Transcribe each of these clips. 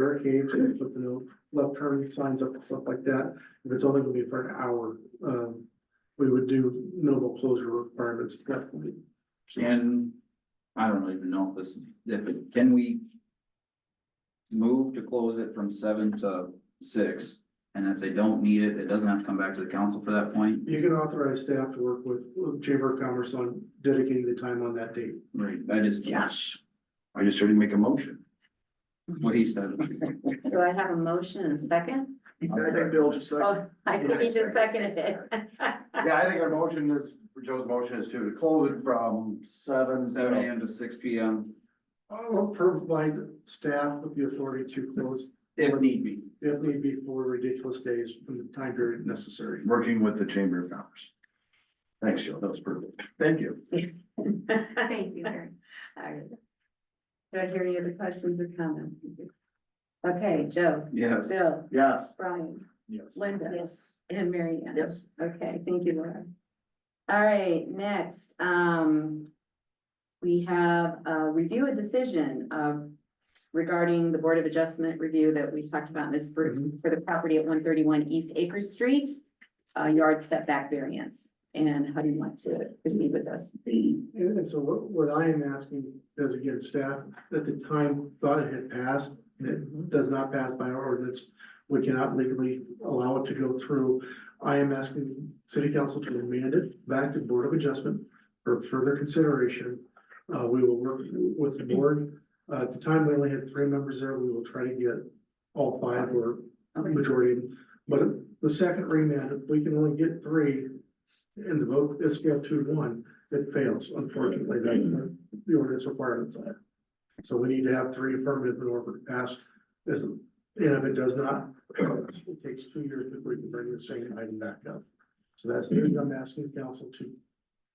barricades and put the no left turn signs up and stuff like that. If it's only gonna be for an hour, um, we would do minimal closure requirements at that point. Can, I don't even know if this, if it, can we? Move to close it from seven to six, and if they don't need it, it doesn't have to come back to the council for that point? You can authorize staff to work with with Chamber of Commerce on dedicating the time on that date. Right. I just, Yes. I just heard him make a motion. what he said. So I have a motion and a second. I think Bill just Oh, I think he just seconded it. Yeah, I think our motion is, Joe's motion is to close it from seven. Seven AM to six PM, I'll provide staff with the authority to close if need be. if need be for ridiculous days from the time period necessary. Working with the Chamber of Commerce. Thanks, Joe, that was perfect. Thank you. Thank you, Mary. All right. Do I hear any other questions or comments? Okay, Joe, Yes. Bill, Yes. Brian, Yes. Linda. Yes. And Mary Ann. Okay, thank you, Laura. All right, next, um, we have a review a decision of regarding the Board of Adjustment review that we talked about in this for, for the property at one thirty-one East Acres Street, uh, yard setback variance. And how do you want to proceed with this? And and so what, what I am asking is again, staff, at the time thought it had passed, and it does not pass by our ordinance. We cannot legally allow it to go through. I am asking city council to remand it back to Board of Adjustment for further consideration. Uh, we will work with the board. Uh, at the time, we only had three members there. We will try to get all five or majority. But the second remand, if we can only get three, and the vote is scale two to one, it fails, unfortunately, that the ordinance requirements on it. So we need to have three affirmative in order to pass this, and if it does not, it takes two years before we can bring the same item back up. So that's the reason I'm asking the council to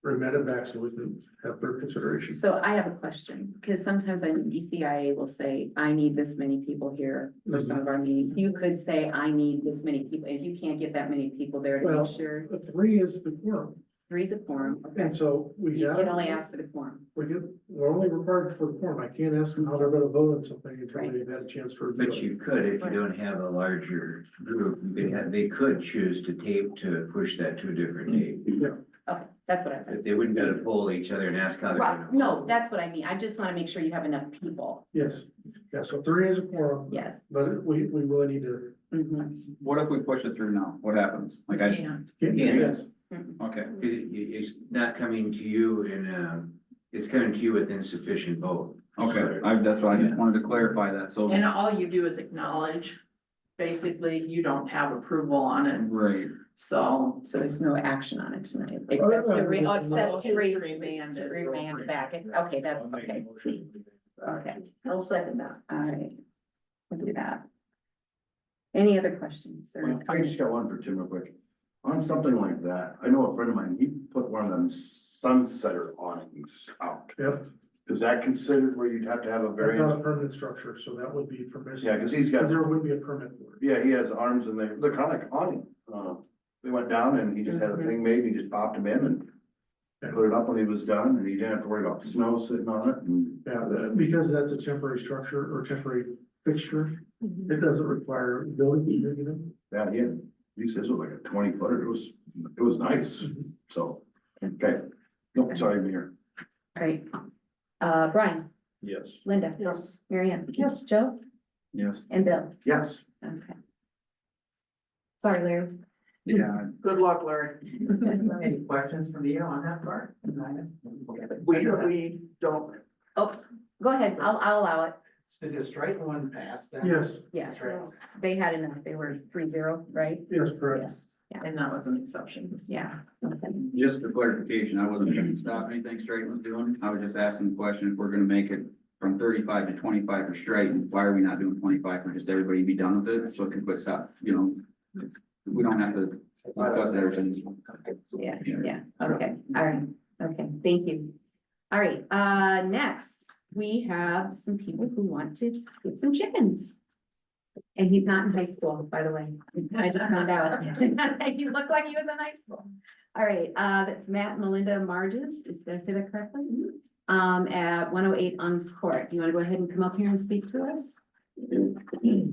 remit it back so we can have their consideration. So I have a question, because sometimes I, ECIA will say, I need this many people here for some of our meetings. You could say, I need this many people, if you can't get that many people there to Well- make sure, But Three is the quorum, three's a quorum, and okay? so we You got. can only ask for the quorum. We get, we're only required for the quorum. I can't ask them how they're gonna vote on something until they've had a chance to review But it. you could, if you don't have a larger group, they had, they could choose to tape to push that to a different date. Okay, that's what I But said. they wouldn't gotta poll each other and ask how they're gonna. Right, no, vote. that's what I mean. I just want to make sure you have enough people. Yes, yeah, so three is a quorum. Yes. But we, we really need to. Mhm. What if we push it through now? What happens? Like I, Yeah. Yes. Mhm. okay, It- it- it's not coming to you in, um, it's coming to you with insufficient vote. okay, I, that's why I just wanted to clarify that, so. And all you do is acknowledge, basically, you don't have approval on it, Right, so. So there's no action on it tonight, except to re, oh, except to re, Remand to it. remand back. Okay, that's okay. Okay. I'll second that. All right, we'll do that. Any other questions or I just got one for Tim real quick. On something like that, I know a friend of mine, he put one of them sunsetter awnings out. Yep, Is that considered where you'd have to have a that's very, not a permanent structure, so that would be permission. yeah, cause he's got Because there would be a permit for it. Yeah, he has arms and they, they're kind of like awning. Uh, they went down and he just had a thing made, and he just popped him in and and put it up when he was done and he didn't have to worry about snow sitting on it and Yeah, that- because that's a temporary structure or temporary fixture, it doesn't require building. permit. that, yeah. He says it was like a twenty footer. It was, it was nice. So, okay. No, sorry, Mayor. Great. Uh, Brian, Yes. Linda, Yes. Marianne, Yes. Joe yes. and Bill. Yes. Okay. Sorry, Larry. Yeah, Good luck, Larry. Any questions from you on that part? We, we don't. Oh, go ahead. I'll, I'll allow it. Did the straight one pass that? Yes, Yes. They had enough. They were three zero, right? yes, correct. Yes, and that was an exception. Yeah. Just for clarification, I wasn't trying to stop anything Straight was doing. I was just asking the question, if we're gonna make it from thirty-five to twenty-five for Straight, why are we not doing twenty-five for just everybody be done with it, so it can quit stop, you know? We don't have to discuss everything. Yeah, yeah. Okay, all right. Okay, thank you. All right, uh, next, we have some people who want to get some chickens. And he's not in high school, by the way. I just found out. He looked like he was in high school. All right, uh, that's Matt and Melinda Marges. Is, did I say that correctly? Um, at one oh eight Ung's Court. Do you want to go ahead and come up here and speak to us?